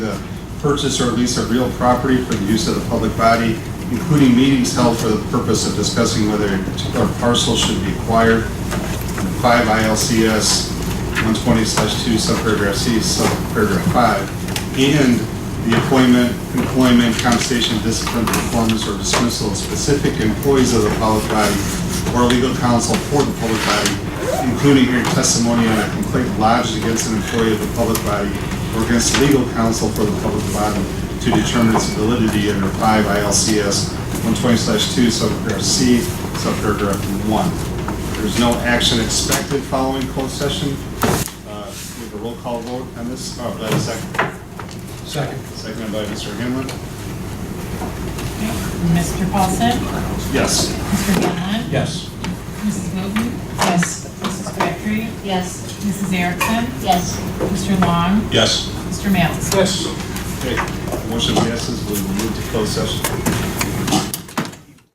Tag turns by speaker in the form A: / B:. A: purchase or lease of real property for the use of the public body, including meetings held for the purpose of discussing whether a particular parcel should be acquired. Five ILCS 120/2 subparagraph C, subparagraph 5, and the appointment, employment, compensation, discipline, performance, or dismissal of specific employees of the public body or legal counsel for the public body, including hearing testimony on a complaint lodged against an employee of the public body or against legal counsel for the public body to determine its validity under 5 ILCS 120/2 subparagraph C, subparagraph 1. There's no action expected following closed session. Uh, We have a roll call vote on this. Oh, that is second,
B: Second.
A: seconded by Mr. Hanlon.
C: Mr. Paulson?
A: Yes.
C: Mr. Hanlon?
B: Yes.
C: Mrs. Newton? Yes. Mrs. Crabtree?
D: Yes.
C: Mrs. Erickson?
D: Yes.
C: Mr. Long?
B: Yes.
C: Mr. Matheson?
B: Yes.
A: Okay. Motion passes. We will move to closed session.